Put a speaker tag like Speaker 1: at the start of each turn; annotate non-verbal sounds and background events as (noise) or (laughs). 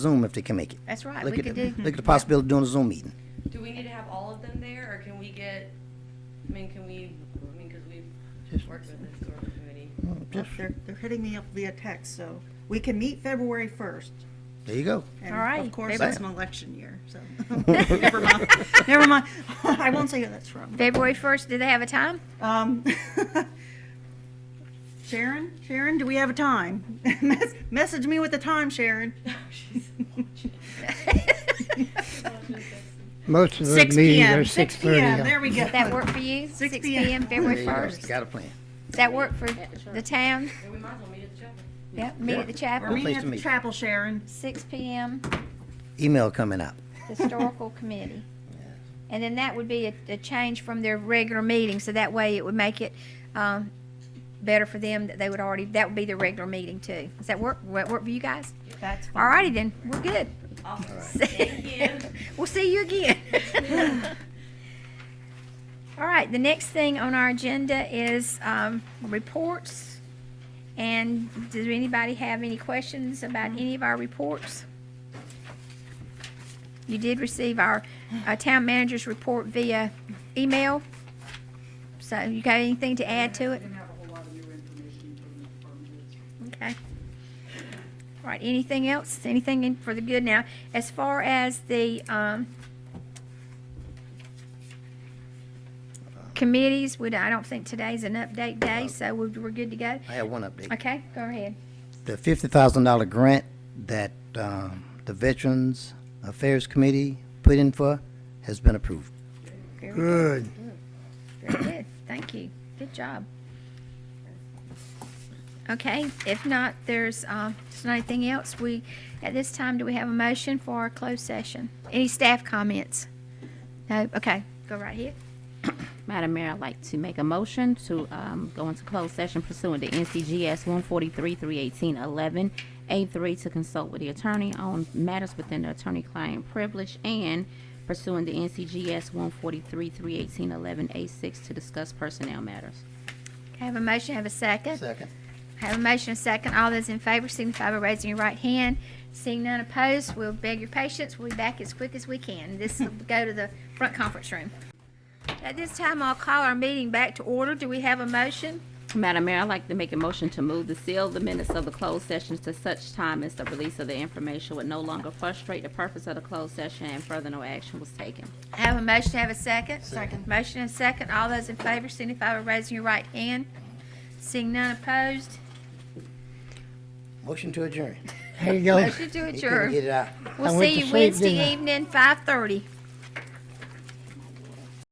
Speaker 1: Zoom if they can make it.
Speaker 2: That's right,
Speaker 1: Look
Speaker 2: we
Speaker 1: at
Speaker 2: could
Speaker 1: the-
Speaker 2: do-
Speaker 1: Look at the possibility of doing a Zoom meeting.
Speaker 3: Do we need to have all of them there, or can we get, I mean, can we, I mean, because we've
Speaker 4: Just-
Speaker 3: worked with this sort of committee. (laughs)
Speaker 4: Well,
Speaker 1: Just,
Speaker 4: They're, they're hitting me up via text, so we can meet February first.
Speaker 1: there you go.
Speaker 4: And
Speaker 2: All right,
Speaker 4: Of course,
Speaker 2: February.
Speaker 4: it's an election year,
Speaker 2: (laughs)
Speaker 4: so, never mind, never mind. I won't say who that's from.
Speaker 2: February first, do they have a time?
Speaker 4: Um, (laughs) Sharon, Sharon, do we have a time? Mes- Message me with the
Speaker 2: (laughs)
Speaker 4: time, Sharon.
Speaker 3: Oh, (laughs)
Speaker 4: (laughs)
Speaker 5: Most of the
Speaker 2: 6
Speaker 5: meetings
Speaker 4: PM,
Speaker 5: are six
Speaker 4: PM, there
Speaker 5: thirty.
Speaker 4: we go.
Speaker 2: That work for you? Six
Speaker 4: p.m.
Speaker 2: PM, February first. Does
Speaker 1: Got a plan.
Speaker 2: that work for the town?
Speaker 3: And we might as well meet at the chapel.
Speaker 2: Yep, meet at the
Speaker 4: We're
Speaker 2: chapel,
Speaker 1: Pleased
Speaker 4: meeting
Speaker 1: to
Speaker 4: at the
Speaker 1: meet you.
Speaker 4: chapel, Sharon.
Speaker 2: six PM,
Speaker 1: Email coming out. (laughs)
Speaker 2: historical committee. And then that would be a, a change from their regular meeting, so that way it would make it, um, better for them that they would already, that would be their regular meeting too. Does that work, Will that work for you guys?
Speaker 4: That's
Speaker 2: All righty then, we're good.
Speaker 3: Awesome. Thank you.
Speaker 2: We'll see you
Speaker 3: (laughs)
Speaker 2: again. All right, the next thing on our agenda is um, reports. And does anybody have any questions about any of our reports? You did receive our uh, town manager's report via email. So you got anything to add to it?
Speaker 6: Didn't have a whole lot of new information from the department heads.
Speaker 2: Okay. All right, anything else? Anything in for the good now? As far as the, um, committees, we, I don't think today's an update day, so we're, we're good to go.
Speaker 1: I have one update.
Speaker 2: Okay, go ahead.
Speaker 1: The fifty thousand dollar grant that, um, the Veterans Affairs Committee put in for has been approved.
Speaker 2: Very good.
Speaker 5: Good.
Speaker 2: Very good. Thank you. Good job. Okay, if not, there's, um, there's not anything else. We, at this time, do we have a motion for our closed session? Any staff comments? No? Okay, go right ahead.
Speaker 7: Madam Mayor, I'd like to make a motion to um, go into closed session pursuant to NCGS 143-318-11, A3, to consult with the attorney on matters within the attorney-client privilege, and pursuant to NCGS 143-318-11, A6, to discuss personnel matters.
Speaker 2: Have a motion, have a second.
Speaker 1: Second.
Speaker 2: Have a motion, a second. All those in favor signify by raising your right hand. Seeing none opposed, we'll beg your patience. We'll be back as quick as we can.
Speaker 5: (laughs)
Speaker 2: This will go to the front conference room. At this time, I'll call our meeting back to order. Do we have a motion?
Speaker 7: Madam Mayor, I'd like to make a motion to move to seal the minutes of the closed session to such time as the release of the information would no longer frustrate the purpose of the closed session and further no action was taken.
Speaker 2: Have a motion, have a second? Second. Motion and second. All those in favor signify by raising your right hand. Seeing none opposed,
Speaker 1: Motion to adjourn.
Speaker 5: There you go.
Speaker 2: motion to
Speaker 1: He couldn't
Speaker 2: adjourn.
Speaker 1: Get it out.
Speaker 2: We'll
Speaker 5: I went
Speaker 2: see
Speaker 5: to
Speaker 2: you
Speaker 5: sleep,
Speaker 2: Wednesday
Speaker 5: didn't I?
Speaker 2: evening, 5:30.